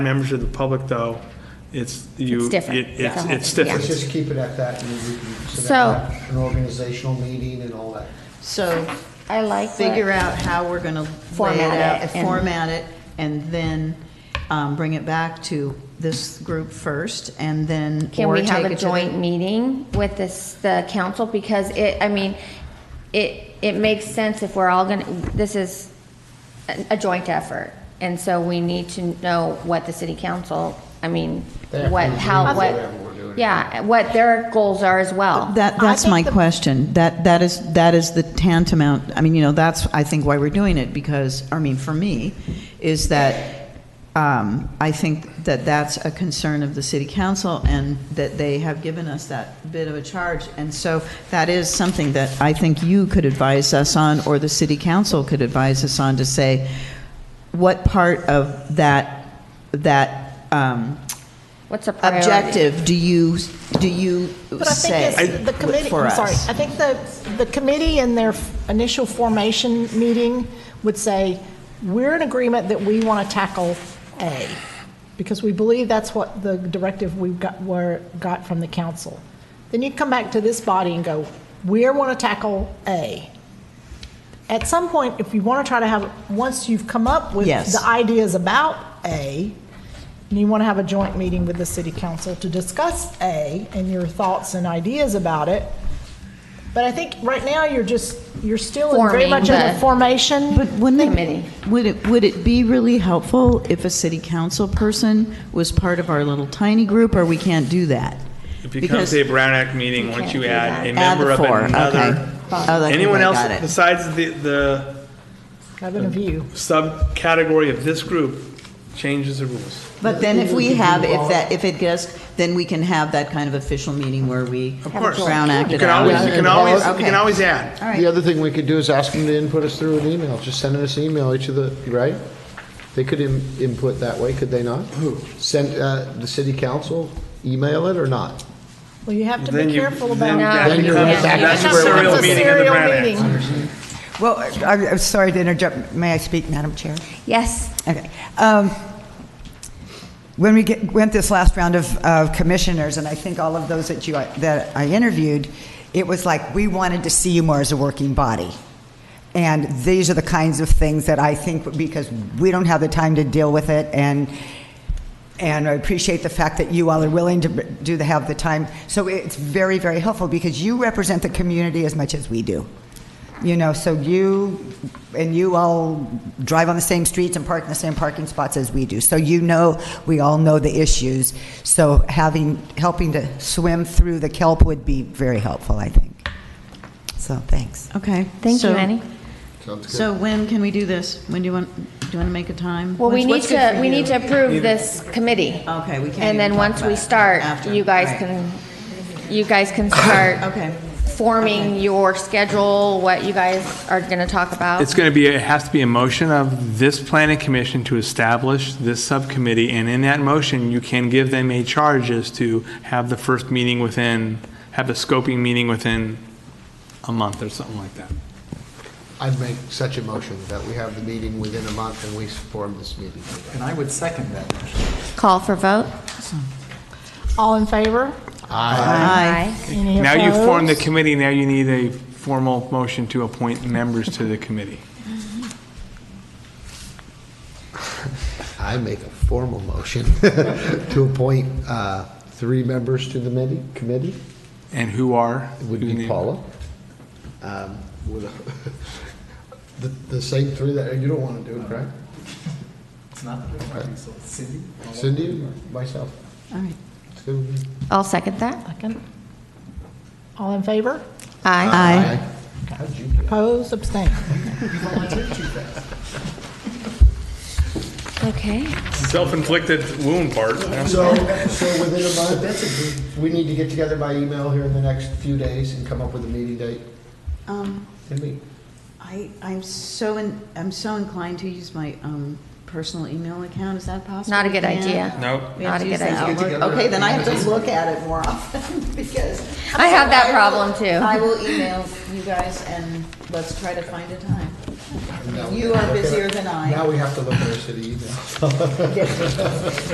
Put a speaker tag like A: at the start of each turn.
A: members of the public, though, it's, you.
B: It's different.
A: it- It's,
B: Yeah.
A: it's
B: Yeah.
A: different.
C: Let's just keep it at that, and we can sit
B: So-
C: at that, an organizational meeting and all that.
D: So
B: I like what-
D: figure out how we're going to lay it
B: Format
D: out,
B: it
D: and
B: and-
D: format it, and then um, bring it back to this group first, and then,
B: Can
D: or
B: we
D: take
B: have a
D: it to
B: joint
D: the...
B: meeting with this, the council? Because it, I mean, it, it makes sense if we're all gonna, this is a a joint effort. And so we need to know what the city council, I mean,
C: They have to
B: what, how,
C: agree
B: what,
C: with whatever we're doing.
B: yeah, what their goals are as well.
D: That, that's my question. That, that is, that is the tantamount, I mean, you know, that's, I think, why we're doing it, because, I mean, for me, is that um, I think that that's a concern of the city council, and that they have given us that bit of a charge. And so that is something that I think you could advise us on, or the city council could advise us on, to say, what part of that, that um,
B: What's a priority?
D: objective do you, do you
E: But I
D: say
E: think it's the committee,
D: for
E: I'm
D: us?
E: sorry, I think the, the committee in their initial formation meeting would say, we're in agreement that we want to tackle A, because we believe that's what the directive we got, were, got from the council. Then you come back to this body and go, we want to tackle A. At some point, if you want to try to have, once you've come up with
D: Yes.
E: the ideas about A, and you want to have a joint meeting with the city council to discuss A and your thoughts and ideas about it. But I think right now, you're just, you're still in very
B: Forming
E: much in
B: the-
E: the formation.
D: But wouldn't
B: Committee.
D: it, would it, would it be really helpful if a city council person was part of our little tiny group, or we can't do that?
A: It
D: Because-
A: becomes a Brown Act meeting once
B: can't
A: you
B: do
A: add
B: that.
A: a
D: Add the
A: member of
D: four,
A: another.
D: okay. Oh, okay,
A: Anyone
D: I
A: else
D: got it.
A: besides the, the
E: I've been a view.
A: subcategory of this group changes the rules.
D: But then if we have, if that, if it gets, then we can have that kind of official meeting where we
A: Of course.
D: Brown
A: You
D: acted
A: can
D: out.
A: always, you can always, you
D: Okay.
A: can always add.
D: All right.
C: The other thing we could do is ask them to input us through an email, just send us an email, each of the, right? They could im- input that way, could they not? Who? Send, uh, the city council, email it or not?
E: Well, you have to
A: Then
E: be
A: you-
E: careful
A: then
E: about.
A: that
C: Then you're
A: becomes a
C: back to
E: That's
C: where
A: Serial
C: It's a
A: meeting of the
E: serial
A: Brown Act.
E: meeting.
F: Well, I'm I'm sorry to interrupt. May I speak, Madam Chair?
B: Yes,
F: Okay. Um, When we get- went this last round of of commissioners, and I think all of those that you, that I interviewed, it was like, we wanted to see you more as a working body. And these are the kinds of things that I think, because we don't have the time to deal with it, and, and I appreciate the fact that you all are willing to do, the have the time. So it's very, very helpful, because you represent the community as much as we do. You know, so you, and you all drive on the same streets and park in the same parking spots as we do. So you know, we all know the issues. So having, helping to swim through the kelp would be very helpful, I think. So, thanks.
D: Okay.
B: thank you,
D: so-
B: Annie.
C: Sounds good.
D: So when can we do this? When do you want, do you want to make a time?
B: Well, we need
D: What's- what's good
B: to,
D: for
B: we
D: you?
B: need to approve this committee.
D: Okay, we can't
B: And then
D: even talk
B: once
D: about
B: we
D: it
B: start,
D: after.
B: you guys
D: Right.
B: can, you guys can start.
D: Okay.
B: Forming your schedule, what you guys are gonna talk about.
A: It's going to be, it has to be a motion of this planning commission to establish this subcommittee, and in that motion, you can give them a charge as to have the first meeting within, have the scoping meeting within a month or something like that.
C: I'd make such a motion that we have the meeting within a month and we form this meeting.
G: And I would second that.
B: Call for vote.
E: All in favor?
B: Aye.
E: Any
A: Now you've formed the
E: opposed?
A: committee, now you need a formal motion to appoint members to the committee.
C: I make a formal motion to appoint, uh, three members to the committee, committee.
A: And who are?
C: It would
A: who's
C: be
A: named?
C: Paula. Um, with a- The, the same three that, you don't want to do it, correct?
G: It's not, I think so. Cindy?
C: Cindy, and myself.
D: All right.
C: It's gonna be-
B: I'll second that.
E: Second. All in favor?
B: Aye.
D: Aye.
C: How'd you do?
E: Opposed, abstained.
B: Okay.
A: Self-inflicted wound part.
C: So, so within a month, that's a good- we need to get together by email here in the next few days and come up with a meeting date
D: Um,
C: and meet.
D: I, I'm so, in- I'm so inclined to use my um, personal email account. Is that possible?
B: Not a good
D: Yeah.
B: idea.
A: Nope.
D: We have
B: Not a
D: to use
B: good
D: the
B: idea.
D: Outlook. Okay, then I have to look at it more often because.
B: I have that
D: will-
B: problem, too.
D: I will email you guys and let's try to find a time.
C: And now we
D: You
C: have to
D: are
C: look at-
D: busier than I.
C: Now we have to look at our city email.